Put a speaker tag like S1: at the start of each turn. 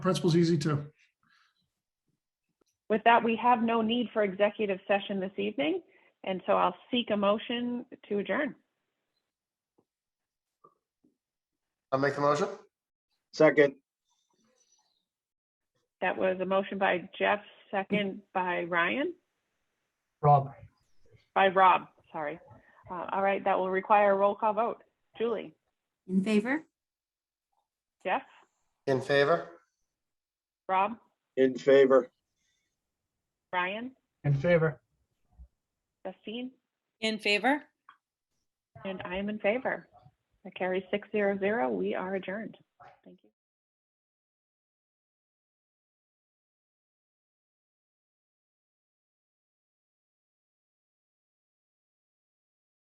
S1: principle's easy too.
S2: With that, we have no need for executive session this evening, and so I'll seek a motion to adjourn.
S3: I'll make the motion.
S4: Second,
S2: That was a motion by Jeff, second by Ryan,
S5: Rob,
S2: by Rob, sorry. Uh, All right, that will require a roll call vote. Julie,
S6: In favor?
S2: Jeff,
S3: In favor?
S2: Rob,
S4: in favor.
S2: Ryan,
S5: in favor.
S2: Justine,
S7: In favor?
S2: and I am in favor. That carries six zero zero. We are adjourned.